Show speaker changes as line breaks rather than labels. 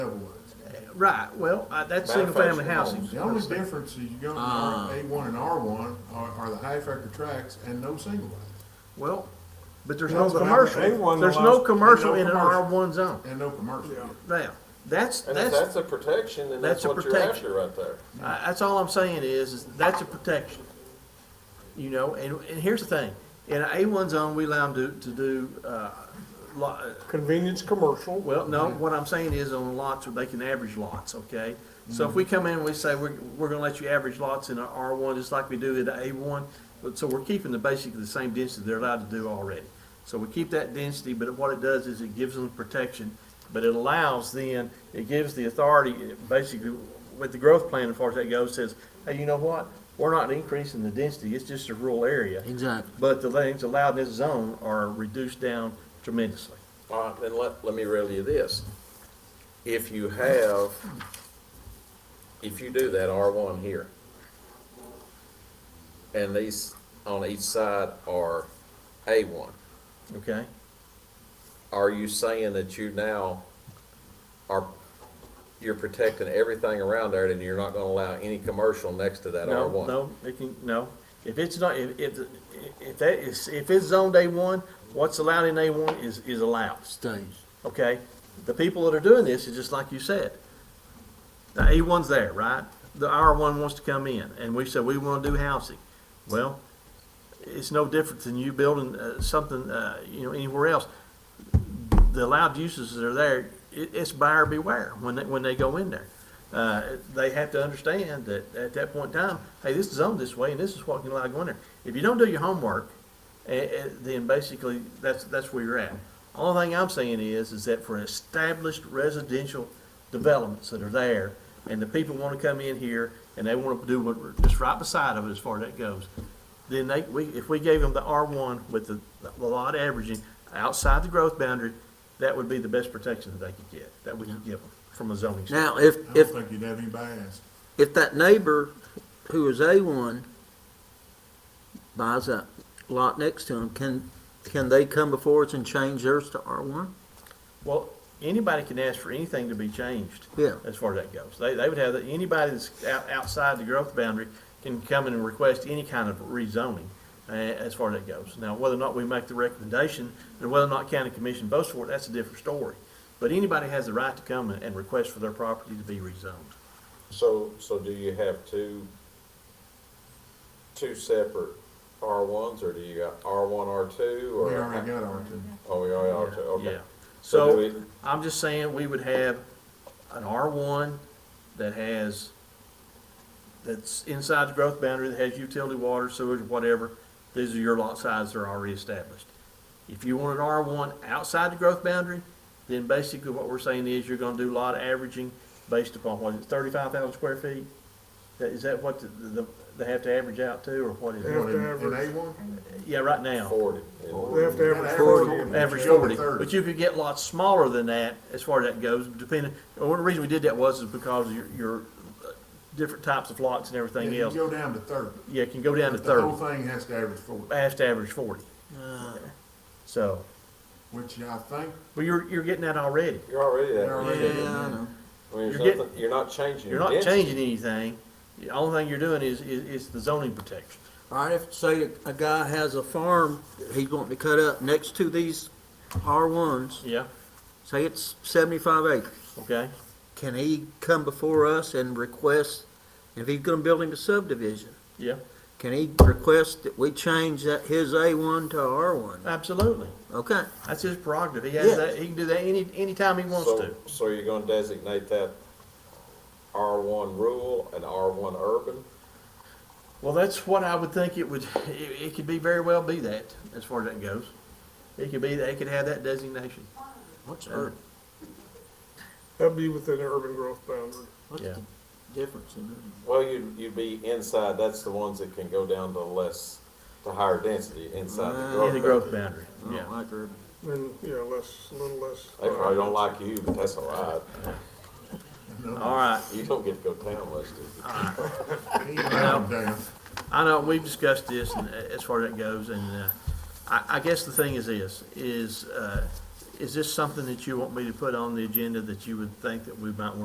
Right, well, uh, that's
Manufactured
single-family housing.
homes.
The only difference is you go to
Ah.
A one and R one are, are the high factor tracks and no single lane,
Well, but there's no
Well, but I-
commercial,
they won the
there's no
last-
commercial in an
no
R
commercial.
one zone.
and no commercial.
Yeah.
Now, that's,
And if
that's,
that's a protection, then that's
that's a
what you're
protection.
after right there.
I- that's all I'm saying is, is that's a protection. You know, and, and here's the thing, in an A one zone, we allow them to, to do, uh, lo-
Convenience commercial.
Well, no, what I'm saying is on lots where they can average lots, okay? So if we come in and we say, we're, we're gonna let you average lots in our R1, just like we do in the A1, but, so we're keeping the, basically the same density they're allowed to do already. So we keep that density, but what it does is it gives them protection, but it allows then, it gives the authority, it basically, with the growth plan, as far as that goes, says, hey, you know what? We're not increasing the density, it's just a rural area,
Exactly.
but the things allowed in this zone are reduced down tremendously.
All right, then let, let me riddle you this. If you have, if you do that R one here, and these on each side are A one,
Okay?
are you saying that you now are, you're protecting everything around there, and you're not gonna allow any commercial next to that R
No,
one?
no, it can, no. If it's not, if, if, if that is, if it's zoned A one, what's allowed in A one is, is allowed,
Stays.
okay? The people that are doing this is just like you said. The A one's there, right? The R one wants to come in, and we said, we wanna do housing. Well, it's no different than you building, uh, something, uh, you know, anywhere else. The allowed uses that are there, it, it's buyer beware when they, when they go in there. Uh, they have to understand that at that point in time, hey, this is zoned this way and this is what can allow going there. If you don't do your homework, eh, eh, then basically that's, that's where you're at. Only thing I'm saying is, is that for established residential developments that are there and the people wanna come in here and they wanna do what, we're just right beside of it as far as that goes, then they, we, if we gave them the R one with the, the lot averaging outside the growth boundary, that would be the best protection that they could get, that we could give them from a zoning standpoint.
Now, if,
I
if,
don't think you'd have anybody ask.
if that neighbor who is A1 buys that lot next to him, can, can they come before us and change theirs to R1?
Well, anybody can ask for anything to be changed.
Yeah.
As far as that goes. They, they would have, that anybody that's out, outside the growth boundary can come in and request any kind of rezoning, uh, as far as that goes. Now, whether or not we make the recommendation, and whether or not county commission votes for it, that's a different story. But anybody has the right to come and and request for their property to be rezoned.
So, so do you have two, two separate R ones, or do you got R one, R two,
We
or?
already got our two.
Oh, we already are two, okay.
Yeah.
So do
So,
we-
I'm just saying, we would have an R one that has, that's inside the growth boundary, that has utility, water, sewage, whatever, these are your lot sizes that are already established. If you want an R one outside the growth boundary, then basically what we're saying is you're gonna do lot averaging based upon, what is it, thirty-five thousand square feet? That- Is that what the, the, they have to average out to, or what is
Yeah.
it?
What, in- in
average.
A one?
Yeah, right now.
Forty.
They have to average
Average forty, but you could get lots smaller than that as far as that goes, depending, well, one reason we did that was is because your, your uh, different types of lots and everything
You
else,
go down to thirty.
yeah, it can go down to
But The whole
thirty,
thing has to average forty,
has to average forty.
Uh,
So,
which I think,
but you're, you're getting that already,
You're already
they're
there.
already.
I know.
I mean, there's
You're getting-
nothing, you're not changing
you're
your
not
density.
changing anything, the only thing you're doing is, is, is the zoning protection.
All right, if, say, a guy has a farm that he's wanting to cut up next to these R1s,
Yeah,
say it's 75 acres,
okay,
can he come before us and request, if he's gonna build him a subdivision,
yeah,
can he request that we change that, his A1 to R1?
absolutely,
Okay,
that's his prerogative, he has
Yeah.
that, he can do that any, anytime he wants
So,
to,
so you're gonna designate that R one rural and R one urban?
well, that's what I would think it would, it, it could be very well be that, as far as that goes. It could be, they could have that designation.
what's,
Uh,
the-
That'd be within the urban growth boundary.
what's
Yeah.
the difference in that?
Well, you'd, you'd be inside, that's the ones that can go down to less, to higher density inside the
Uh,
Ah.
In
growth.
the
boundary.
growth boundary,
I
yeah.
don't like urban.
And, you know, less, a little less.
They probably don't like you, but that's all right.
All right,
You don't get to go down much, do you?
he allowed them down.
I know, we've discussed this and uh, as far as that goes, and, uh, I, I guess the thing is this, is, uh, is this something that you want me to put on the agenda that you would think that we might want